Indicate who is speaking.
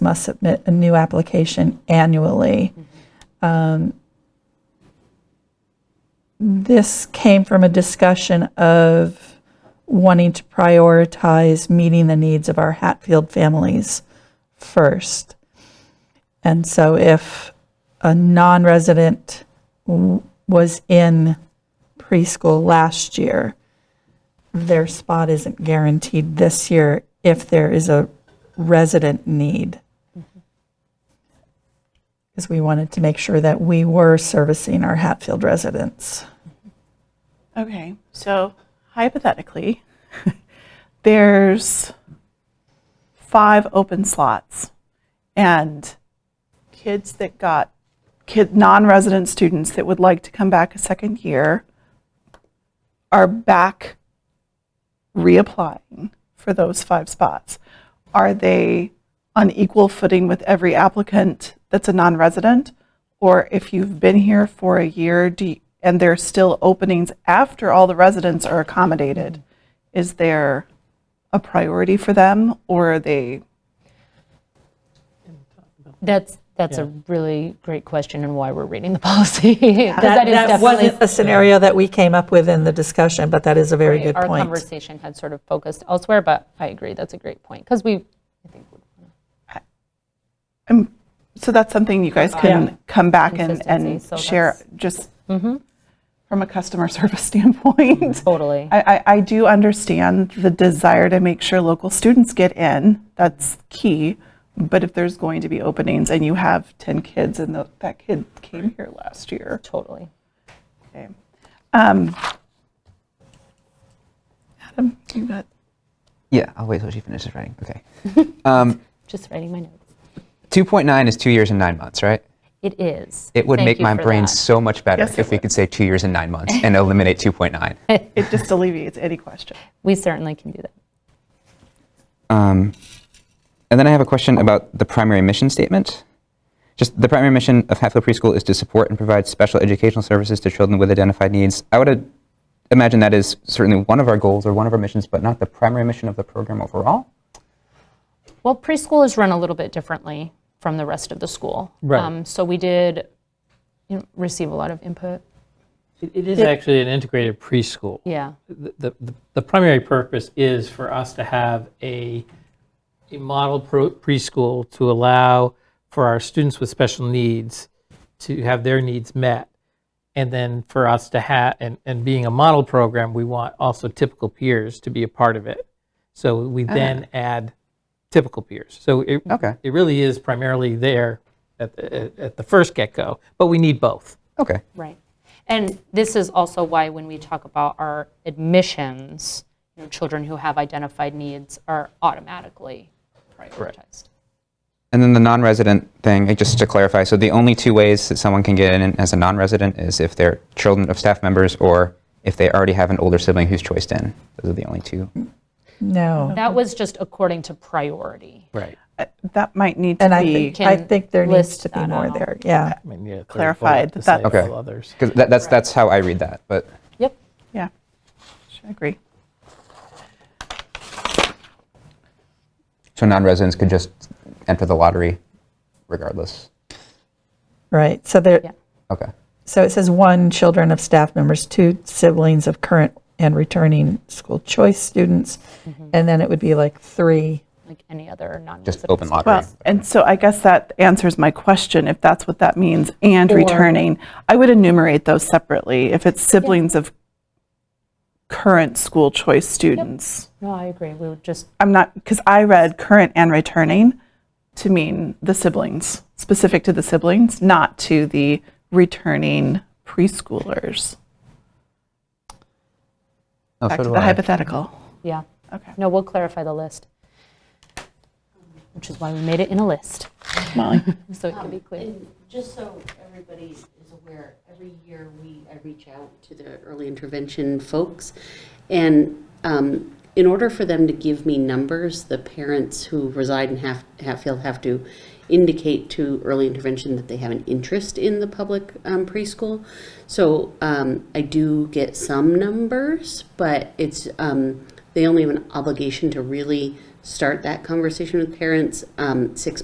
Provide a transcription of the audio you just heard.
Speaker 1: must submit a new application annually. Um, This came from a discussion of wanting to prioritize meeting the needs of our Hatfield families first. And so if a non-resident w- was in preschool last year, their spot isn't guaranteed this year if there is a resident need. Because we wanted to make sure that we were servicing our Hatfield residents.
Speaker 2: Okay, so hypothetically, there's five open slots, and kids that got kid non-resident students that would like to come back a second year are back reapplying for those five spots. Are they on equal footing with every applicant that's a non-resident? Or if you've been here for a year do you- and there's still openings after all the residents are accommodated, is there a priority for them or are they,
Speaker 3: That's, that's a really great question and why we're reading the policy. 'Cause that is definitely,
Speaker 1: wasn't a scenario that we came up with in the discussion, but that is a very good
Speaker 3: our
Speaker 1: point.
Speaker 3: conversation had sort of focused elsewhere, but I agree, that's a great point. Because we, I think, would
Speaker 2: um, so that's something you guys can come back and,
Speaker 3: Consistency,
Speaker 2: and
Speaker 3: so Mm-hmm.
Speaker 2: share just from a customer service standpoint.
Speaker 3: totally,
Speaker 2: I, I, I do understand the desire to make sure local students get in. That's key. But if there's going to be openings and you have 10 kids and tho- that kid came here last year,
Speaker 3: totally.
Speaker 2: okay. Um, Adam, you got
Speaker 4: Yeah, I'll wait till she finishes writing. Okay. um,
Speaker 3: Just writing my notes.
Speaker 4: 2.9 is two years and nine months, right?
Speaker 3: It is.
Speaker 4: It would
Speaker 3: Thank
Speaker 4: make
Speaker 3: you
Speaker 4: my
Speaker 3: for
Speaker 4: brain
Speaker 3: that.
Speaker 4: so much better
Speaker 2: Yes, it
Speaker 4: if we
Speaker 2: would.
Speaker 4: could say two years and nine months and eliminate 2.9.
Speaker 2: it, just alleviates any question.
Speaker 3: We certainly can do that.
Speaker 4: Um, and then I have a question about the primary mission statement. Just the primary mission of Hatfield Preschool is to support and provide special educational services to children with identified needs. I would uh, imagine that is certainly one of our goals or one of our missions, but not the primary mission of the program overall.
Speaker 3: Well, preschool is run a little bit differently from the rest of the school.
Speaker 5: Right.
Speaker 3: Um, So we did you know, receive a lot of input,
Speaker 5: It it is actually an integrated preschool.
Speaker 3: yeah.
Speaker 5: The- The the primary purpose is for us to have a, a model pro- preschool to allow for our students with special needs to have their needs met. And then for us to have, and, and being a model program, we want also typical peers to be a part of it. So we then add typical peers. So it,
Speaker 4: Okay.
Speaker 5: it really is primarily there at, the- at the first get-go, but we need both.
Speaker 4: Okay.
Speaker 3: Right. And this is also why when we talk about our admissions, you know, children who have identified needs are automatically prioritized.
Speaker 4: And then the non-resident thing, uh, just to clarify, so the only two ways that someone can get in as a non-resident is if they're children of staff members or if they already have an older sibling who's choiced in. Those are the only two.
Speaker 1: No,
Speaker 3: That was just according to priority.
Speaker 5: Right.
Speaker 2: Uh, That might need to
Speaker 1: and I
Speaker 2: be
Speaker 1: think,
Speaker 3: can
Speaker 1: I think there needs
Speaker 3: list
Speaker 1: to be
Speaker 3: that
Speaker 1: more
Speaker 3: out.
Speaker 1: there, yeah.
Speaker 5: I mean, yeah, third
Speaker 2: Clarified
Speaker 5: bullet to
Speaker 2: that
Speaker 5: say
Speaker 4: that's-
Speaker 5: all others.
Speaker 4: Because that, that's, that's how I read that, but
Speaker 3: Yep.
Speaker 2: Yeah, I agree.
Speaker 4: so non-residents could just enter the lottery regardless.
Speaker 1: Right, so there,
Speaker 3: Yeah.
Speaker 4: Okay.
Speaker 1: So it says one, children of staff members, two, siblings of current and returning school choice students,
Speaker 3: Mm-hmm.
Speaker 1: and then it would be like three.
Speaker 3: Like any other non-resident.
Speaker 4: Just open
Speaker 3: school.
Speaker 4: lottery.
Speaker 2: Well, and so I guess that answers my question, if that's what that means, and returning. I would enumerate those separately, if it's siblings of current school choice students.
Speaker 3: No, I agree. We would just,
Speaker 2: I'm not, because I read current and returning to mean the siblings, specific to the siblings, not to the returning preschoolers.
Speaker 4: Oh,
Speaker 2: Back
Speaker 4: so
Speaker 2: to
Speaker 4: do
Speaker 2: the
Speaker 4: I.
Speaker 2: hypothetical.
Speaker 3: yeah.
Speaker 2: Okay.
Speaker 3: No, we'll clarify the list, which is why we made it in a list,
Speaker 2: Molly?
Speaker 3: so it can be clear.
Speaker 6: And just so everybody is aware, every year we, I reach out to the early intervention folks. And um, in order for them to give me numbers, the parents who reside in Haf- Hatfield have to indicate to early intervention that they have an interest in the public um, preschool. So um, I do get some numbers, but it's, um, they only have an obligation to really start that conversation with parents um, six